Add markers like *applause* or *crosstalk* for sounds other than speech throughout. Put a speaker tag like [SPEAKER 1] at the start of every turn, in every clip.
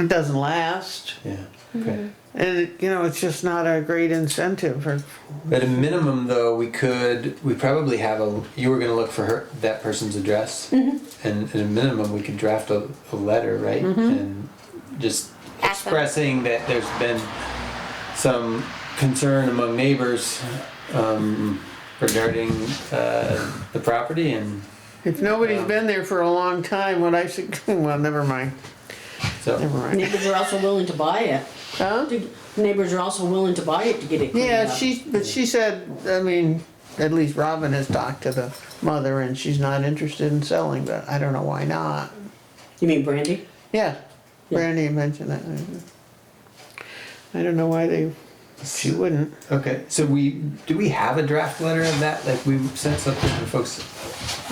[SPEAKER 1] it doesn't last.
[SPEAKER 2] Yeah, okay.
[SPEAKER 1] And, you know, it's just not a great incentive for,
[SPEAKER 2] At a minimum, though, we could, we probably have a, you were gonna look for her, that person's address. And at a minimum, we could draft a, a letter, right? And just
[SPEAKER 3] Ask them.
[SPEAKER 2] expressing that there's been some concern among neighbors, um, regarding, uh, the property and
[SPEAKER 1] if nobody's been there for a long time, what I should, *laughs* well, never mind, never
[SPEAKER 2] so.
[SPEAKER 1] mind.
[SPEAKER 4] Neighbors are also willing to buy it.
[SPEAKER 1] Huh?
[SPEAKER 4] The Neighbors are also willing to buy it to get it cleaned
[SPEAKER 1] Yeah,
[SPEAKER 4] up.
[SPEAKER 1] she, but she said, I mean, at least Robin has talked to the mother and she's not interested in selling, but I don't know why not.
[SPEAKER 4] You mean Brandy?
[SPEAKER 1] Yeah,
[SPEAKER 4] Yeah.
[SPEAKER 1] Brandy mentioned that. I don't know why they, she wouldn't.
[SPEAKER 2] Okay, so we, do we have a draft letter of that? Like, we sent something to folks,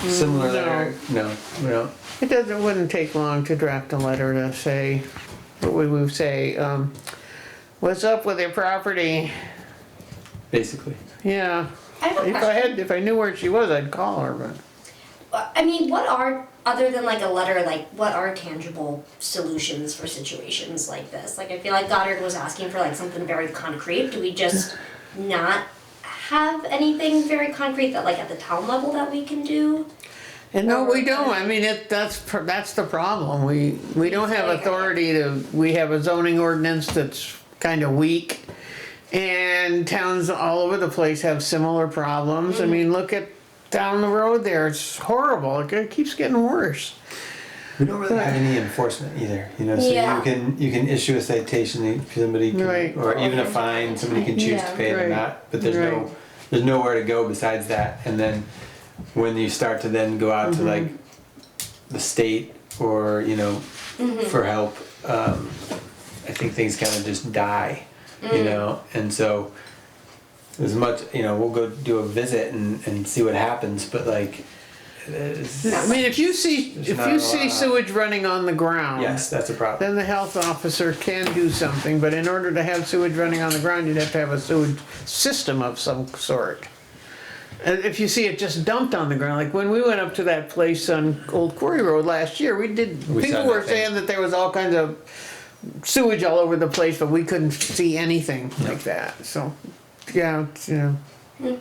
[SPEAKER 2] similar
[SPEAKER 1] no.
[SPEAKER 2] letter? Mm, No, we don't.
[SPEAKER 1] It doesn't, it wouldn't take long to draft a letter to say, what we would say, um, what's up with your property?
[SPEAKER 2] Basically.
[SPEAKER 1] Yeah,
[SPEAKER 3] I have a
[SPEAKER 1] if I
[SPEAKER 3] question.
[SPEAKER 1] had, if I knew where she was, I'd call her, but.
[SPEAKER 3] I mean, what are other than like a letter, like what are tangible solutions for situations like this? Like I feel like Goddard was asking for like something very concrete. Do we just not have anything very concrete that like at the town level that we can do?
[SPEAKER 1] And no,
[SPEAKER 3] Or-
[SPEAKER 1] we don't, I mean, it, that's, pr- that's the problem, we, we don't have authority to, we have a zoning ordinance that's kinda weak. And towns all over the place have similar problems, I
[SPEAKER 3] Mm-hmm.
[SPEAKER 1] mean, look at down the road there, it's horrible, it ge- keeps getting worse.
[SPEAKER 2] We don't really have any enforcement either, you know. So
[SPEAKER 3] Yeah.
[SPEAKER 2] you can you can issue a citation, if somebody can,
[SPEAKER 1] Right.
[SPEAKER 2] or even a fine. Somebody can choose to
[SPEAKER 3] Yeah.
[SPEAKER 2] pay it or
[SPEAKER 1] Right.
[SPEAKER 2] not. But there's
[SPEAKER 1] Right.
[SPEAKER 2] no there's nowhere to go besides that. And then when you start to then go
[SPEAKER 1] Mm-hmm.
[SPEAKER 2] out to like the state or you know
[SPEAKER 3] Mm-hmm.
[SPEAKER 2] for help, um, I think things kind of just die,
[SPEAKER 3] Mm.
[SPEAKER 2] you know. And so as much you know, we'll go do a visit and, and see what happens. But like, it's-
[SPEAKER 1] I mean, if you see,
[SPEAKER 2] There's
[SPEAKER 1] if
[SPEAKER 2] not
[SPEAKER 1] you
[SPEAKER 2] a
[SPEAKER 1] see
[SPEAKER 2] lot.
[SPEAKER 1] sewage running on the ground.
[SPEAKER 2] yes, that's a problem.
[SPEAKER 1] Then the health officer can do something, but in order to have sewage running on the ground, you'd have to have a sewage system of some sort. And if you see it just dumped on the ground, like when we went up to that place on Old Quarry Road last year, we did,
[SPEAKER 2] We saw
[SPEAKER 1] people were
[SPEAKER 2] nothing.
[SPEAKER 1] saying that there was all kinds of sewage all over the place, but we couldn't see anything like that, so, yeah, it's, you know.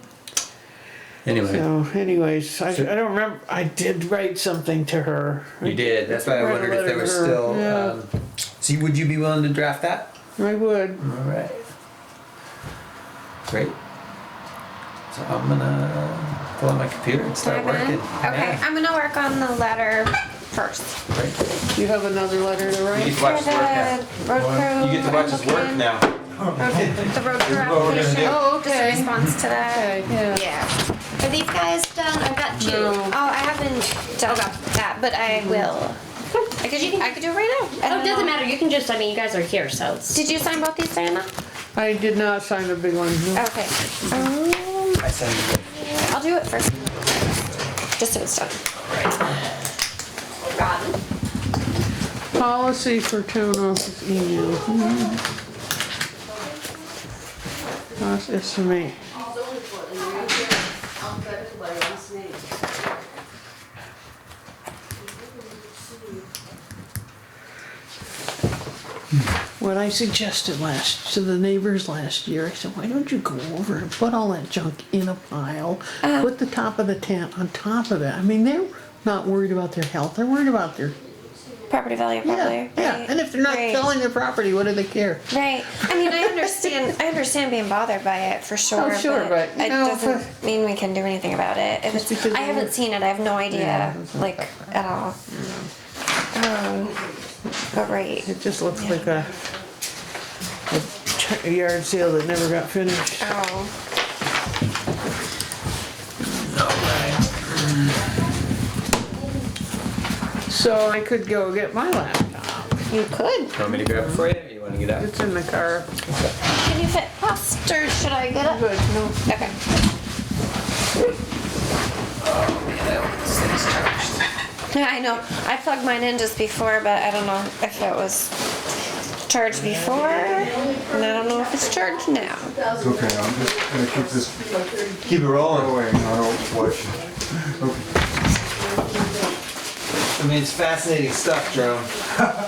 [SPEAKER 2] Anyway.
[SPEAKER 1] So anyways, I, I don't remember, I did write something to her.
[SPEAKER 2] You did. That's why I
[SPEAKER 1] Write a
[SPEAKER 2] wondered if there
[SPEAKER 1] letter
[SPEAKER 2] was
[SPEAKER 1] to her.
[SPEAKER 2] still.
[SPEAKER 1] Yeah.
[SPEAKER 2] Um, so, you- would you be willing to draft that?
[SPEAKER 1] I would.
[SPEAKER 2] All right. Great. So I'm gonna pull out my computer and
[SPEAKER 5] Can I
[SPEAKER 2] start
[SPEAKER 5] go in?
[SPEAKER 2] working.
[SPEAKER 5] Okay, I'm gonna work on the letter first.
[SPEAKER 2] Great.
[SPEAKER 1] You have another letter to
[SPEAKER 6] You get
[SPEAKER 1] write?
[SPEAKER 6] to watch his work
[SPEAKER 5] Yeah,
[SPEAKER 6] now.
[SPEAKER 5] the road crew
[SPEAKER 6] You get to watch his work
[SPEAKER 5] application-
[SPEAKER 6] now.
[SPEAKER 5] The road
[SPEAKER 6] This
[SPEAKER 5] crew
[SPEAKER 6] is what we're gonna
[SPEAKER 5] application.
[SPEAKER 6] do.
[SPEAKER 1] Oh,
[SPEAKER 5] Just a
[SPEAKER 1] okay.
[SPEAKER 5] response to that.
[SPEAKER 1] Okay, yeah.
[SPEAKER 5] Yeah. Are these guys done? I've got two.
[SPEAKER 4] No.
[SPEAKER 5] Oh, I haven't done that, but I will. I could, I could do it right now. I
[SPEAKER 3] Oh,
[SPEAKER 5] don't
[SPEAKER 3] it doesn't
[SPEAKER 5] know.
[SPEAKER 3] matter. You can just. I mean, you guys are here, so it's.
[SPEAKER 5] Did you sign both these, Diana?
[SPEAKER 1] I did not sign the big one. no.
[SPEAKER 5] Okay. Um,
[SPEAKER 2] I send you.
[SPEAKER 5] I'll do it first. Just so it's done.
[SPEAKER 3] Robin.
[SPEAKER 1] Policy for town office email. Hmm. Cost estimate. What I suggested last, to the neighbors last year, I said, why don't you go over and put all that junk in a pile? Put the top of the tent on top of it. I mean, they're not worried about their health, they're worried about their
[SPEAKER 5] Property value,
[SPEAKER 1] yeah,
[SPEAKER 5] probably.
[SPEAKER 1] yeah,
[SPEAKER 5] right?
[SPEAKER 1] and if they're not
[SPEAKER 5] Right.
[SPEAKER 1] selling their property, what do they care?
[SPEAKER 5] Right. I mean, I understand. I understand being bothered by it for sure.
[SPEAKER 1] Oh, sure, but, you
[SPEAKER 5] it
[SPEAKER 1] know,
[SPEAKER 5] doesn't
[SPEAKER 1] *laughs* if
[SPEAKER 5] mean we can do anything about it. If
[SPEAKER 1] Just
[SPEAKER 5] it's,
[SPEAKER 1] because
[SPEAKER 5] I
[SPEAKER 1] you-
[SPEAKER 5] haven't seen it. I have no idea,
[SPEAKER 1] Yeah, it's not
[SPEAKER 5] like at all. Um, but right.
[SPEAKER 1] It just looks like a, a ch- a yard sale that never got finished.
[SPEAKER 5] Oh,
[SPEAKER 1] So I could go get my laptop.
[SPEAKER 5] you could.
[SPEAKER 2] Want me to grab it for you? Or you want to get out?
[SPEAKER 1] It's in the car.
[SPEAKER 5] Can you fit past, or should I get up?
[SPEAKER 1] Good, no.
[SPEAKER 5] Okay. Yeah, *laughs* I know. I plugged mine in just before, but I don't know if it was charged before, and I don't know if it's charged now.
[SPEAKER 7] It's okay, I'm just gonna keep this
[SPEAKER 2] Keep it rolling.
[SPEAKER 7] going, I don't watch it.
[SPEAKER 2] I mean, it's fascinating stuff, Jerome.